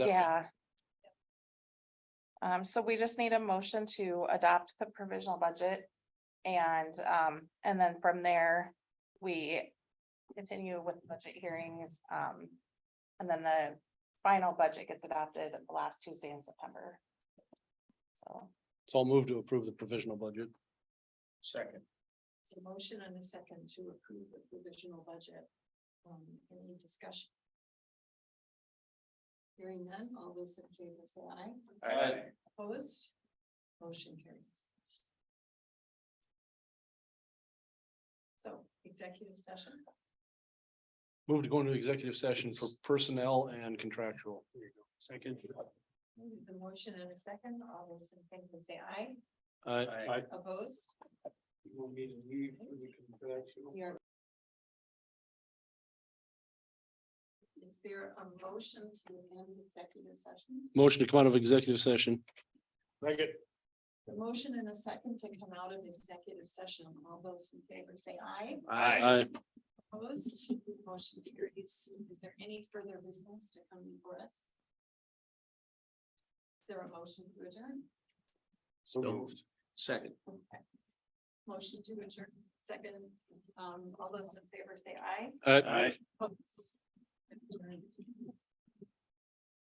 Yeah. Um, so we just need a motion to adopt the provisional budget. And, um, and then from there, we continue with budget hearings, um. And then the final budget gets adopted the last Tuesday in September. So, So I'll move to approve the provisional budget. Second. A motion and a second to approve the provisional budget. Um, any discussion? Hearing none, all those in favor say aye. Opposed? Motion carries. So executive session, Move to go into executive session for personnel and contractual. Second. There's a motion and a second, all those in favor say aye. Uh, Aye. Opposed? We'll need to leave for the contractual. We are. Is there a motion to end executive session? motion to come out of executive session. Second. The motion and a second to come out of executive session. All those in favor say aye. Aye. Opposed, motion carries. Is there any further business to come before us? Is there a motion to adjourn? So moved. Second. Okay. Motion to adjourn, second. Um, all those in favor say aye. Aye. Aye. Opposed? Adjourned.